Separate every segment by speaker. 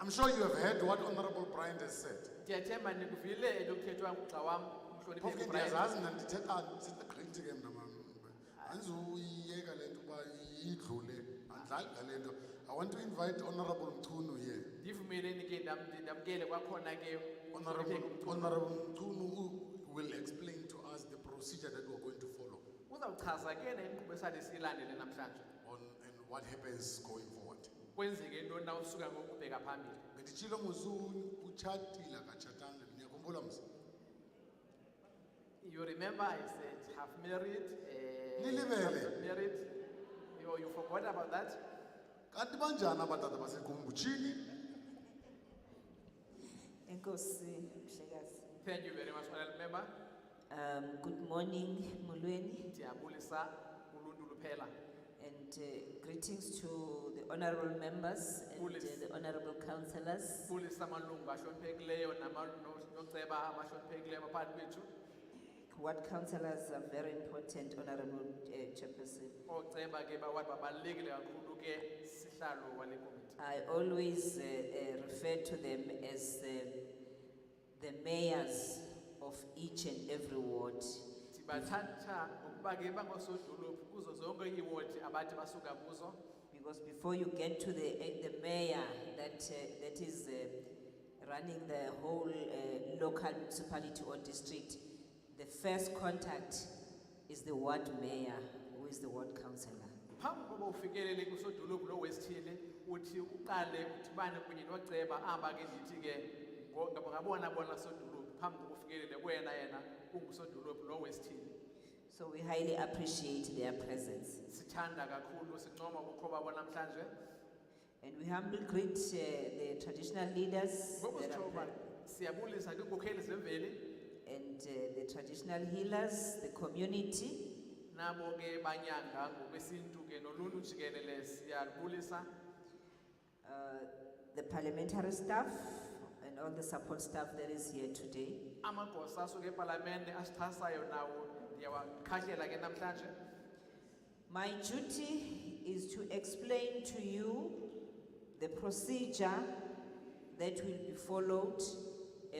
Speaker 1: I'm sure you have heard what Honorable Bryant has said.
Speaker 2: ndiyathemba ndikuvile elokuthethwa ngugxa wam umhloniphe
Speaker 1: phofu ke ndiyazazi mna ndithetha ndisegqithi ke mna mam andizuyiyeka le nto uba idlule andidlali ngale nto i want to invite honorable mchunu here
Speaker 2: ndivumeleni ke ndam- ndamkele kwakhona ke
Speaker 1: honorable,
Speaker 2: umhlonipheke umntu.
Speaker 1: honorable mchunu u- will explain to us the procedure that we're going to follow
Speaker 2: uzawuchaza ke na inkqubo esale siyilandele namhlanje
Speaker 1: on and what happens going forward
Speaker 2: kwenzeke ntoni na usuka ngokubheka phambili
Speaker 1: benditshilo nguzuni utshatile akatshatanga ndiyakhumbula msa
Speaker 2: you remember i said half married eh,
Speaker 1: Nilibele.
Speaker 2: half not married you, you forgot about that
Speaker 1: kanti banjani abatata basegumbutshini
Speaker 3: Enkosi Mhlekazi.
Speaker 2: thank you very much honorable member
Speaker 3: Um good morning Mulweni
Speaker 2: ndiyabulisa uluntu luphela
Speaker 3: and uh, greetings to the honorable members and uh,
Speaker 2: Bulisi.
Speaker 3: the honorable councillors.
Speaker 2: bulisa amalungu ahloniphekileyo nama- no- noceba abahloniphekileyo phakathi kwethu
Speaker 3: Ward councillors are very important honorable uh, chairperson.
Speaker 2: ooceba ke bawathi babalulekile kakhulu ke sihlalo wale komiti
Speaker 3: I always uh, uh, refer to them as the, the mayors of each and every ward.
Speaker 2: ndibathatha ngokuba ke bangosodolophu kuzo zonke iiwodi abathi basuka kuzo
Speaker 3: Because before you get to the, eh, the mayor that, uh, that is uh, running the whole uh, local municipality or district, the first contact is the ward mayor, who is the ward councillor.
Speaker 2: phambi koba ufikelele kusodolophu lowesithile uthi uqale udibane kunye noceba aba ke ndithi ke ngo- ngabo- ngabona bona sodolophu phambi koba ufikelele kwena yena ungusodolophu lowesithile
Speaker 3: So we highly appreciate their presence.
Speaker 2: sithanda kakhulu sincoma ubukho babo namhlanje
Speaker 3: And we humbly greet uh, the traditional leaders that are
Speaker 2: ngobusitshoba
Speaker 3: pre-
Speaker 2: siyabulisa kwiinkokheli zemveli
Speaker 3: and uh, the traditional healers, the community,
Speaker 2: nabo ke banyanga ngokwesintu ke noluntu jikelele siyabulisa
Speaker 3: uh, the parliamentary staff, and all the support staff that is here today.
Speaker 2: amagosa asuke epalamente asixhasayo nawo ndiyawakhahlela ke namhlanje
Speaker 3: My duty is to explain to you the procedure that will be followed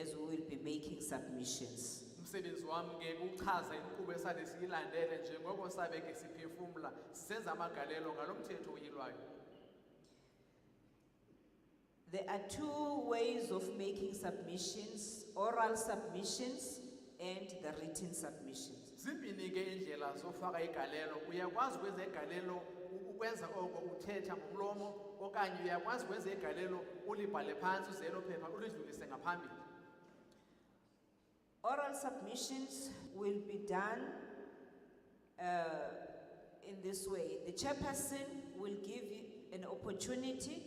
Speaker 3: as we will be making submissions.
Speaker 2: umsebenzi wami ke kuchaza inkqubo esale siyilandele njengoko sabe ke siphefumla senza amagalelo ngalo mthetho uyilwayo
Speaker 3: There are two ways of making submissions oral submissions and the written submissions.
Speaker 2: zimbini ke iindlela zofaka igalelo uyakwazi ukwenza igalelo u- ukwenza oko uthetha ngomlomo okanye uyakwazi ukwenza igalelo ulibhale phantsi uzelo phepha ulidlulise ngaphambili
Speaker 3: Oral submissions will be done uh, in this way. The chairperson will give you an opportunity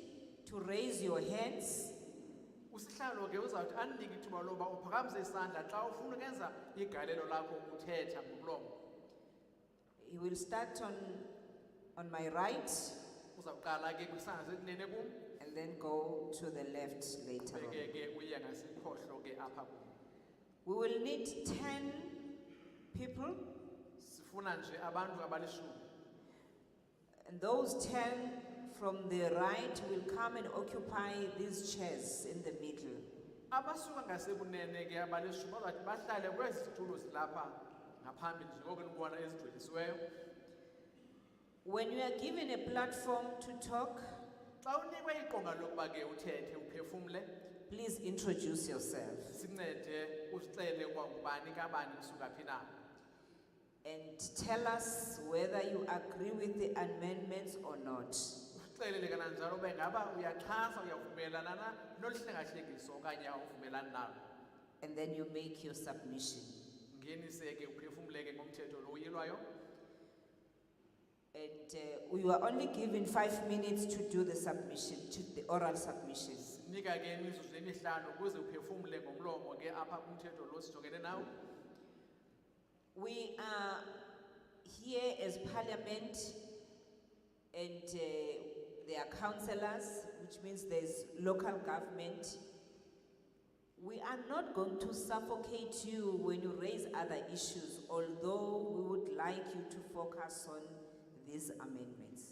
Speaker 3: to raise your hands
Speaker 2: usihlalo ke uzawuthi andinike ithuba loba uphakamise isandla xa ufuna ukwenza igalelo lakho uthetha ngomlomo
Speaker 3: He will start on, on my right
Speaker 2: uzawuqala ke kwisandla sekunene kum
Speaker 3: and then go to the left later on.
Speaker 2: beke ke uye ngasikhohlo ke apha kum
Speaker 3: We will need 10 people,
Speaker 2: sifuna nje abantu abalishumi
Speaker 3: and those 10 from the right will come and occupy these chairs in the middle.
Speaker 2: abasuka ngasekunene ke abalishumi bazawuthi bahlale kwezi zitulo zilapha ngaphambili njengoko nibona ezigcwelisiweyo
Speaker 3: When you are given a platform to talk,
Speaker 2: xa unikwe iqonga lokuba ke uthethe uphefumle
Speaker 3: please introduce yourself
Speaker 2: sincede usixele kwangubani kabani kusuka phi na
Speaker 3: and tell us whether you agree with the amendments or not.
Speaker 2: usixelele kananjalo ube ngaba uyaxhasa uyavumelana na nolu hlengahlengiso okanye awuvumelani nalo
Speaker 3: And then you make your submission.
Speaker 2: ngenise ke uphefumleke ngomthetho lo uyilwayo
Speaker 3: And uh, you are only given five minutes to do the submission, to the oral submission.
Speaker 2: sinika ke imizuzu emihlanu ukuze uphefumle ngomlomo ke apha kumthetho lo sijongene nawo
Speaker 3: We are here as parliament and uh, there are councillors, which means there's local government. We are not going to suffocate you when you raise other issues, although we would like you to focus on these amendments.